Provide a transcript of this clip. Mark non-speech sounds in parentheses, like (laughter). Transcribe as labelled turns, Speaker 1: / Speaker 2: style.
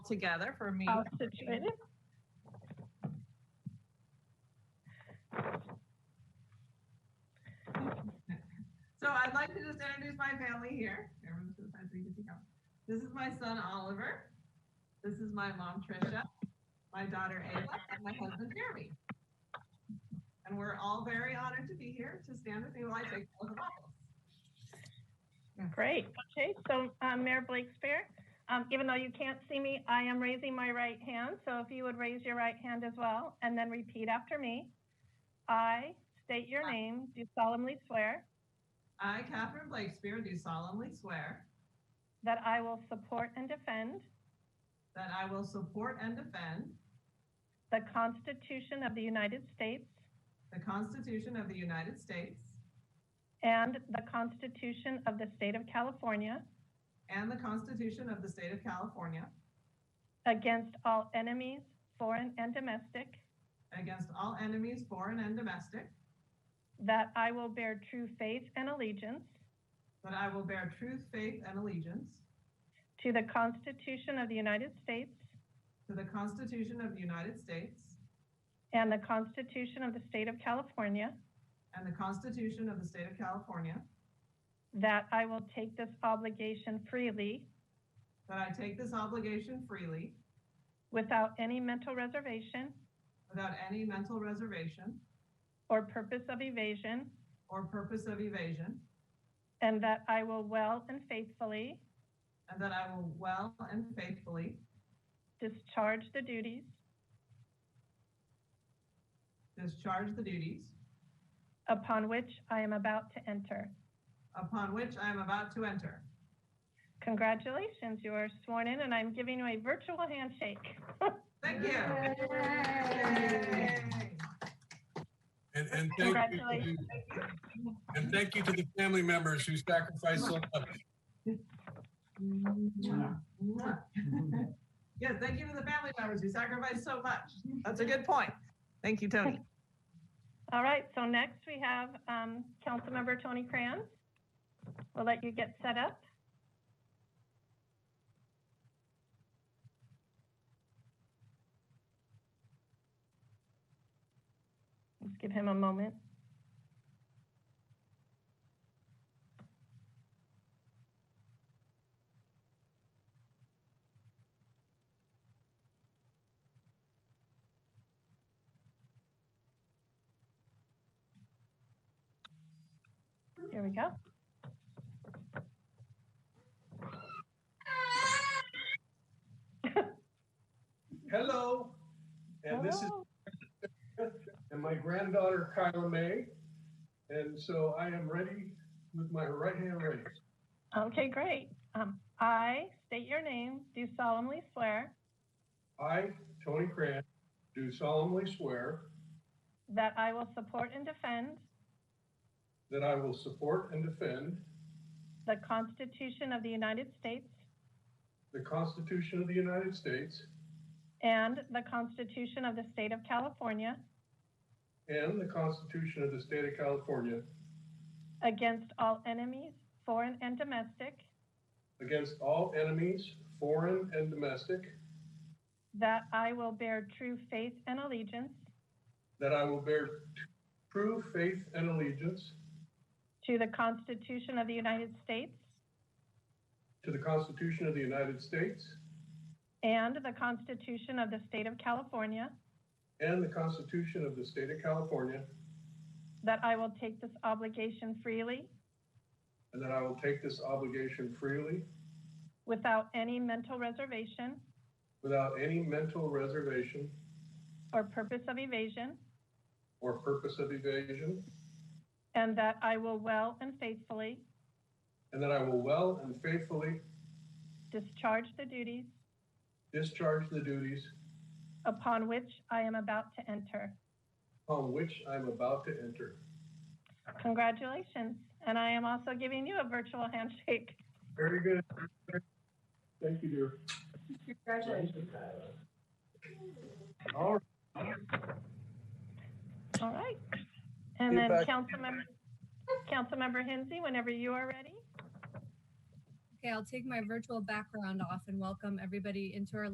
Speaker 1: together for me.
Speaker 2: all situated.
Speaker 1: So I'd like to just introduce my family here. Everyone's to the side so you can see them. This is my son Oliver. This is my mom Trisha, my daughter Ayla, and my husband Jeremy. And we're all very honored to be here to stand with me while I take the oath of office.
Speaker 2: Great. Okay, so um, Mayor Blakespear, um, even though you can't see me, I am raising my right hand. So if you would raise your right hand as well and then repeat after me. I state your name, do solemnly swear
Speaker 1: I, Catherine Blakespear, do solemnly swear
Speaker 2: that I will support and defend
Speaker 1: that I will support and defend
Speaker 2: the Constitution of the United States
Speaker 1: the Constitution of the United States
Speaker 2: and the Constitution of the State of California
Speaker 1: and the Constitution of the State of California
Speaker 2: against all enemies, foreign and domestic,
Speaker 1: against all enemies, foreign and domestic,
Speaker 2: that I will bear true faith and allegiance
Speaker 1: that I will bear truth, faith, and allegiance
Speaker 2: to the Constitution of the United States
Speaker 1: to the Constitution of the United States
Speaker 2: and the Constitution of the State of California,
Speaker 1: and the Constitution of the State of California,
Speaker 2: that I will take this obligation freely
Speaker 1: that I take this obligation freely
Speaker 2: without any mental reservation
Speaker 1: without any mental reservation
Speaker 2: or purpose of evasion,
Speaker 1: or purpose of evasion,
Speaker 2: and that I will well and faithfully
Speaker 1: and that I will well and faithfully
Speaker 2: discharge the duties
Speaker 1: discharge the duties
Speaker 2: upon which I am about to enter.
Speaker 1: upon which I am about to enter.
Speaker 2: Congratulations, you are sworn in, and I'm giving you a virtual handshake.
Speaker 1: Thank you. (laughs) Yay.
Speaker 3: And, and thank you,
Speaker 2: Congratulations.
Speaker 3: and thank you to the family members who sacrificed so much.
Speaker 1: Mwah. Yes, thank you to the family members who sacrificed so much. That's a good point. Thank you, Tony.
Speaker 2: All right, so next we have um, Councilmember Tony Kranz. We'll let you get set up. Let's give him a moment. Here we go.
Speaker 3: Hello, and this is,
Speaker 2: Hello.
Speaker 3: and my granddaughter Kyla May. And so I am ready with my right hand raised.
Speaker 2: Okay, great. Um, I state your name, do solemnly swear
Speaker 3: I, Tony Cran, do solemnly swear
Speaker 2: that I will support and defend
Speaker 3: that I will support and defend
Speaker 2: the Constitution of the United States
Speaker 3: the Constitution of the United States
Speaker 2: and the Constitution of the State of California
Speaker 3: and the Constitution of the State of California
Speaker 2: against all enemies, foreign and domestic,
Speaker 3: against all enemies, foreign and domestic,
Speaker 2: that I will bear true faith and allegiance
Speaker 3: that I will bear t- true faith and allegiance
Speaker 2: to the Constitution of the United States
Speaker 3: to the Constitution of the United States
Speaker 2: and the Constitution of the State of California,
Speaker 3: and the Constitution of the State of California,
Speaker 2: that I will take this obligation freely
Speaker 3: and that I will take this obligation freely
Speaker 2: without any mental reservation
Speaker 3: without any mental reservation
Speaker 2: or purpose of evasion,
Speaker 3: or purpose of evasion,
Speaker 2: and that I will well and faithfully
Speaker 3: and that I will well and faithfully
Speaker 2: discharge the duties
Speaker 3: discharge the duties
Speaker 2: upon which I am about to enter.
Speaker 3: upon which I am about to enter.
Speaker 2: Congratulations. And I am also giving you a virtual handshake.
Speaker 3: Very good. Thank you, dear.
Speaker 1: Congratulations.
Speaker 3: All right.
Speaker 2: All right. And then
Speaker 3: Get back.
Speaker 2: Councilmember, Councilmember Hensy, whenever you are ready.
Speaker 4: Okay, I'll take my virtual background off and welcome everybody into our